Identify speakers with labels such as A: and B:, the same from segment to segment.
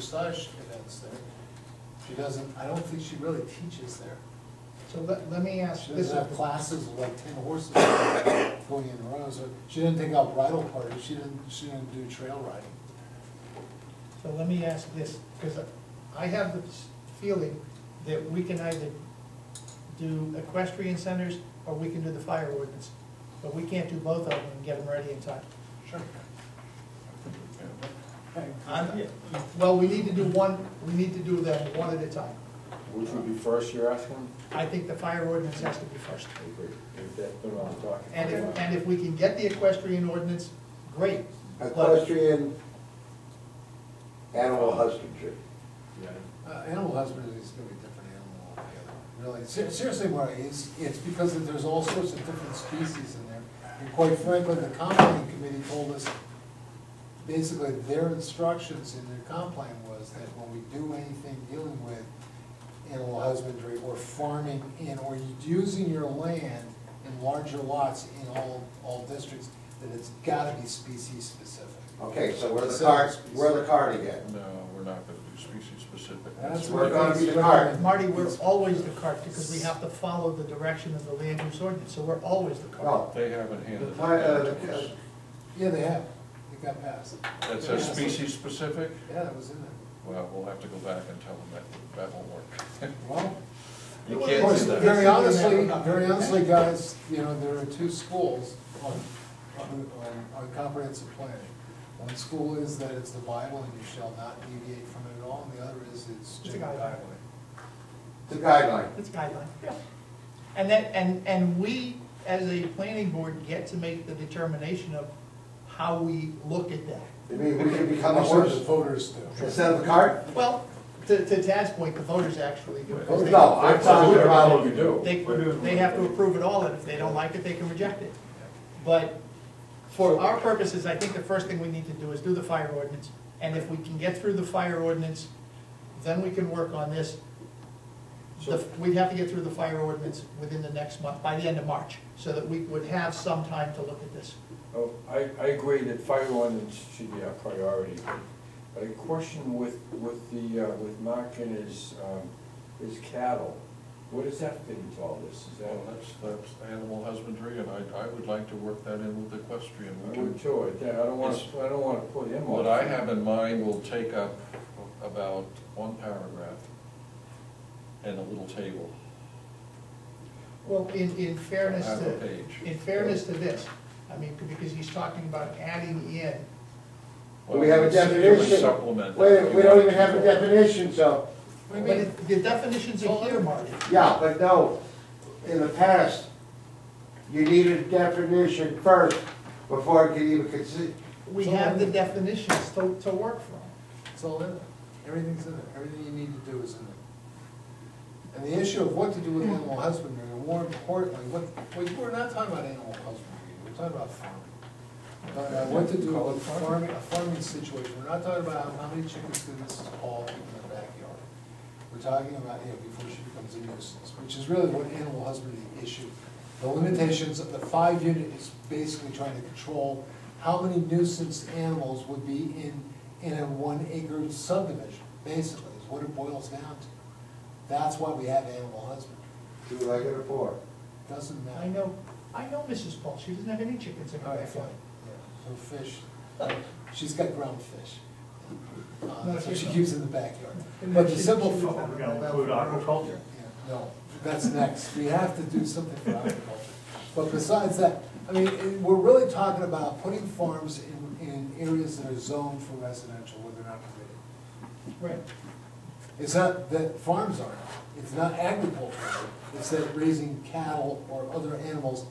A: dressage events there. She doesn't, I don't think she really teaches there.
B: So let, let me ask,
A: She
B: this is,
A: doesn't have classes with like ten horses going in a row, so she didn't take out bridle parties, she didn't, she didn't do trail riding.
B: so let me ask this, because I have the feeling that we can either do equestrian centers or we can do the fire ordinance, but we can't do both of them and get them ready in time.
A: Sure.
B: I'm- Well, we need to do one, we need to do them one at a time.
C: Which would be first, you're asking?
B: I think the fire ordinance has to be first.
C: If that's been on the docket.
B: And if, and if we can get the equestrian ordinance, great.
D: Equestrian animal husbandry.
A: Uh, Animal husbandry is gonna be a different animal altogether, really. Ser- Seriously, Marty, it's, it's because that there's all sorts of different species in there. And quite frankly, the comp plan committee told us, basically their instructions in their comp plan was that when we do anything dealing with animal husbandry or farming in, or using your land in larger lots in all, all districts, that it's gotta be species specific.
D: Okay, so we're the card, we're the card again.
E: No, we're not gonna do species specific.
A: That's
D: We're
A: what
D: gonna be the
A: it's
D: cart.
B: Marty, we're always the cart because we have to follow the direction of the land use ordinance, so we're always the cart.
D: No,
E: They haven't
D: the,
E: handed
D: fi- uh,
E: that
D: the
E: down to us.
A: Yeah, they have, it got passed.
E: That says species specific?
A: Yeah, that was in there.
E: Well, we'll have to go back and tell them that, that won't work.
A: Well.
E: You
B: Well,
E: can't
B: course,
E: do that.
A: Very honestly, very honestly, guys, you know, there are two schools on, on, on comprehensive planning. One school is that it's the Bible and you shall not deviate from it at all, and the other is it's
B: It's
A: just
B: a
A: highway.
B: guideline.
D: it's a guideline.
B: It's guideline. And that, and, and we, as a planning board, get to make the determination of how we look at that.
D: I mean, we should become a
A: That's what the
D: horse
A: voters do.
D: instead of a cart?
B: Well, to, to Tad's point, the voters actually do. it.
D: No, I'm talking about,
C: you do.
B: They, they have to approve it all, and if they don't like it, they can reject it. But for our purposes, I think the first thing we need to do is do the fire ordinance. And if we can get through the fire ordinance, then we can work on this. The- We'd have to get through the fire ordinance within the next month, by the end of March, so that we would have some time to look at this.
C: Oh, I, I agree that fire ordinance should be our priority, but- but a question with, with the, uh, with Mark and his, um, his cattle, what does that fit into all this? Is
E: Well,
C: that,
E: that's, that's animal husbandry, and I, I would like to work that in with equestrian.
C: I would too, I I don't wanna, I don't wanna put him on.
E: What I have in mind will take up about one paragraph and a little table.
B: Well, in, in fairness
E: I have a
B: to,
E: page.
B: in fairness to this, I mean, because he's talking about adding in
D: Do we have a
E: Well, it's- it would
D: definition?
E: Supplement.
D: Wait, we don't even have a definition, so,
B: But it- the definitions are here, Marty.
D: yeah, but no, in the past, you needed a definition first before it could even consider.
B: We have the definitions to, to work from.
A: It's all in there. Everything's in there. Everything you need to do is in there. And the issue of what to do with animal husbandry, and more importantly, what, what, we're not talking about animal husbandry, we're talking about farming. We're talking about What to do with farming, a farming situation. We're not talking about how many chickens do Mrs. Paul keep in her backyard. We're talking about, you know, before she becomes a nuisance, which is really what animal husbandry issue. The limitations of the five unit is basically trying to control how many nuisance animals would be in, in a one acre subdivision, basically, is what it boils down to. That's why we have animal husbandry.
D: Two legged or four?
A: Doesn't matter.
B: I know, I know Mrs. Paul, she doesn't have any chickens in her
A: All right, fine.
B: backyard.
A: Her fish, she's got ground fish. Uh,
B: No,
A: That's what
B: she's
A: she
B: not.
A: keeps in the backyard.
B: And
A: But
B: then
A: the
B: she-
A: simple.
B: she was
A: fa-
B: not-
F: We're gonna include aquaculture.
A: Yeah, No, that's next. We have to do something for agriculture. But besides that, I mean, it- we're really talking about putting farms in, in areas that are zoned for residential where they're not permitted.
B: Right,
A: It's not that farms aren't, it's not agriculture, it's that raising cattle or other animals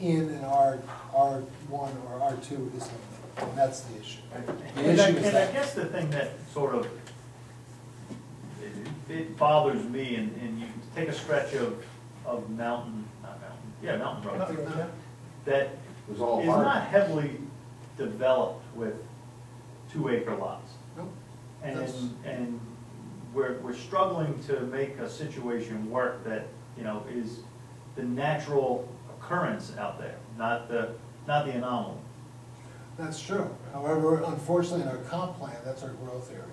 A: in an R, R one or R two is, not- and that's the issue. The
F: And I,
A: issue is
F: and I
A: that,
F: guess the thing that sort of, it- it bothers me, and, and you take a stretch of, of mountain, not mountain, yeah, mountain road,
B: yeah.
F: that
D: It was all
F: is
D: hard.
F: not heavily developed with two acre lots.
A: Nope.
F: And,
A: That's-
F: and we're, we're struggling to make a situation work that, you know, is the natural occurrence out there, not the, not the anomaly.
A: that's true. However, unfortunately, in our comp plan, that's our growth area.